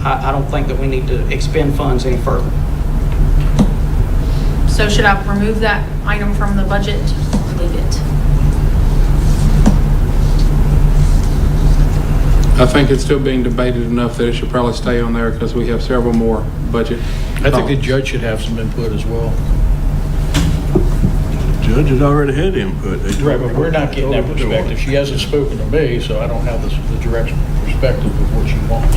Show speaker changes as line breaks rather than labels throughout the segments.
I, I don't think that we need to expend funds any further.
So should I remove that item from the budget? Leave it?
I think it's still being debated enough that it should probably stay on there because we have several more budget.
I think the
thoughts.
judge should have some input as well.
Judge has already had input. They told
Right, but we're not getting that
her what they wanted.
perspective. She hasn't spoken to me, so I don't have the the direct perspective of what she wants.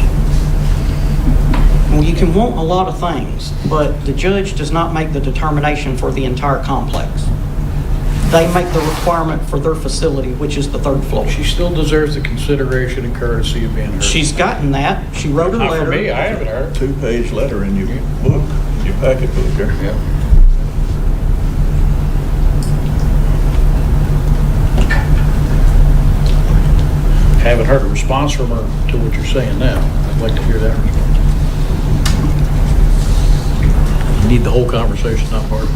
Well, you can want a lot of things, but the judge does not make the determination for the entire complex. They make the requirement for their facility, which is the third floor.
She still deserves the consideration and courtesy of being heard.
She's gotten that. She wrote a
Not
letter.
for me, I haven't heard.
Two-page letter in your book, in your packet book there.
Yeah. Haven't heard a response from her to what you're saying now. I'd like to hear that response. You Need the whole conversation, not part of it.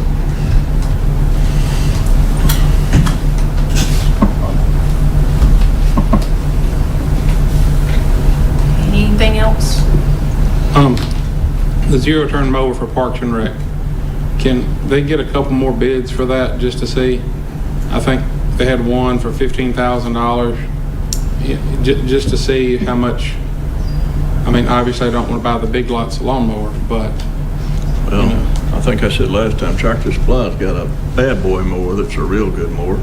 Anything else?
Um, the zero-turn mower for Parks and Rec, can they get a couple more bids for that just to see? I think they had one for fifteen thousand dollars, just to see how much, I mean, obviously I don't want to buy the big lots lawnmower, but,
Well, I think I said last time, Tractor Supply's got a bad boy mower that's a real good mower.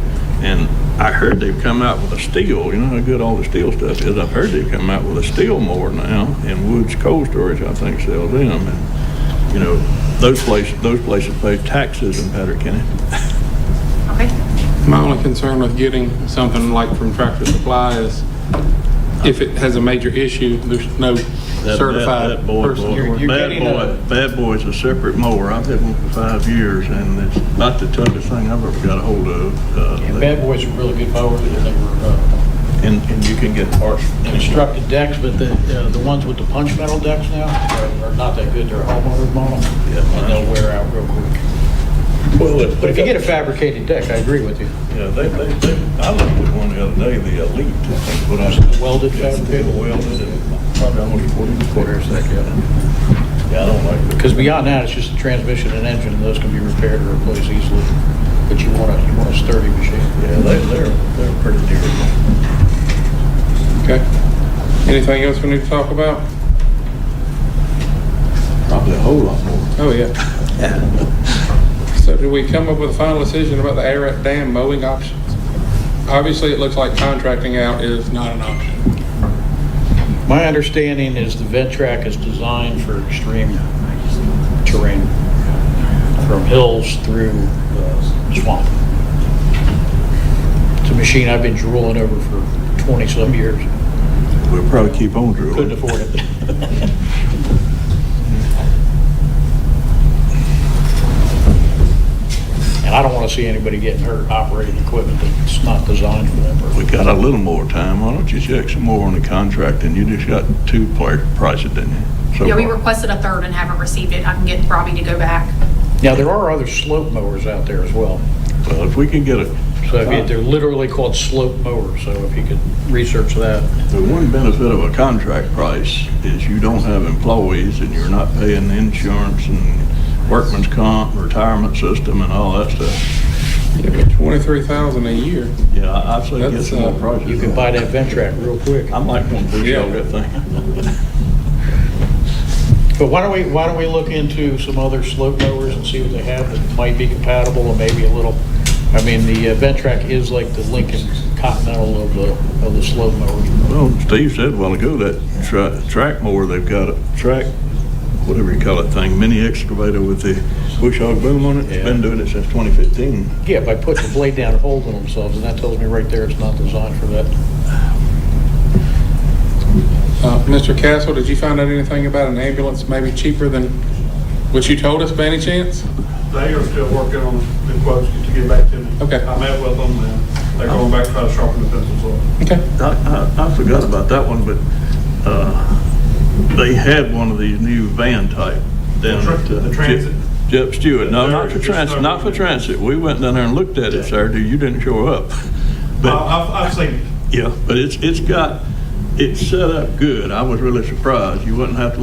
And I heard they've come out with a steel, you know how good all the steel stuff is? I've heard they've come out with a steel mower now, and Woods Cold Storage, I think, sells them. And, you know, those places, those places pay taxes in Patrick County.
Okay.
My only concern with getting something like from Tractor Supply is if it has a major issue, there's no
That- that-
certified
that boy
person.
mower.
You're- you're
Bad
getting
boy,
a-
bad boy's a separate mower. I've had one for five years, and it's not the toughest thing I've ever got a hold of. Uh,
And Bad Boys were really good mowers, and they were uh,
And, and you can get parts. from them.
constructed decks, but the, uh, the ones with the punch metal decks now are- are not that good. They're homeowner's model,
Yeah.
and they'll wear out real quick. But if you get a fabricated deck, I agree with you.
Yeah, they, they, they, I looked at one the other day, the Elite, I think, what I.
Welded
Yeah,
fabricated?
Welded and probably only forty
Quarters,
quarters.
that, yeah.
Yeah, I don't like it.
Because beyond that, it's just the transmission and engine, and those can be repaired or replaced easily. But you want a, you want a sturdy machine.
Yeah, they, they're, they're pretty durable.
Okay. Anything else we need to talk about?
Probably a whole lot more.
Oh, yeah. So did we come up with a final decision about the Ararat Dam mowing options? Obviously, it looks like contracting out is not an option.
My understanding is the vent track is designed for extreme terrain, from hills through uh, swamp. It's a machine I've been drooling over for 20-some years.
We'll probably keep on drilling.
Couldn't afford it. And I don't want to see anybody getting hurt operating equipment that's not designed for that
We
purpose.
got a little more time, why don't you check some more on the contract, and you just got two pla- prices, didn't you? so
Yeah, we
far?
requested a third and haven't received it. I can get Robbie to go back.
Now, there are other slope mowers out there as well.
Well, if we can get a,
So I mean, they're literally called slope mowers, so if you could research that.
The one benefit of a contract price is you don't have employees and you're not paying the insurance and workman's comp, retirement system and all that stuff.
Twenty-three thousand a year.
Yeah, I- I'd say get some more
That's, uh,
prices.
You can buy that vent track real quick.
I might want to push out that thing.
But why don't we, why don't we look into some other slope mowers and see what they have that might be compatible and maybe a little, I mean, the uh, Ventrac is like the Lincoln Continental of the, of the slope mowers.
Well, Steve said a while ago that tra- track mower, they've got a track, whatever you call that thing, mini excavator with the bush hog boom on it. It's been doing it since 2015.
Yeah, by putting the blade down and holding themselves, and that tells me right there it's not designed for that.
Uh, Mr. Castle, did you find out anything about an ambulance maybe cheaper than what you told us by any chance?
They are still working on the quotes to get back to me.
Okay.
I met with them, and they're going back to try to sharpen the pencils up.
Okay.
I, I, I forgot about that one, but, uh, they had one of these new van type down
The
at.
tran-
uh,
the transit?
Jep Jep Stewart, no, not for
They're-
transit, not for transit, we went down there and looked at it Saturday, you didn't show up.
I-
But,
I've, I've seen it.
yeah, but it's, it's got, it's set up good, I was really surprised, you wouldn't have to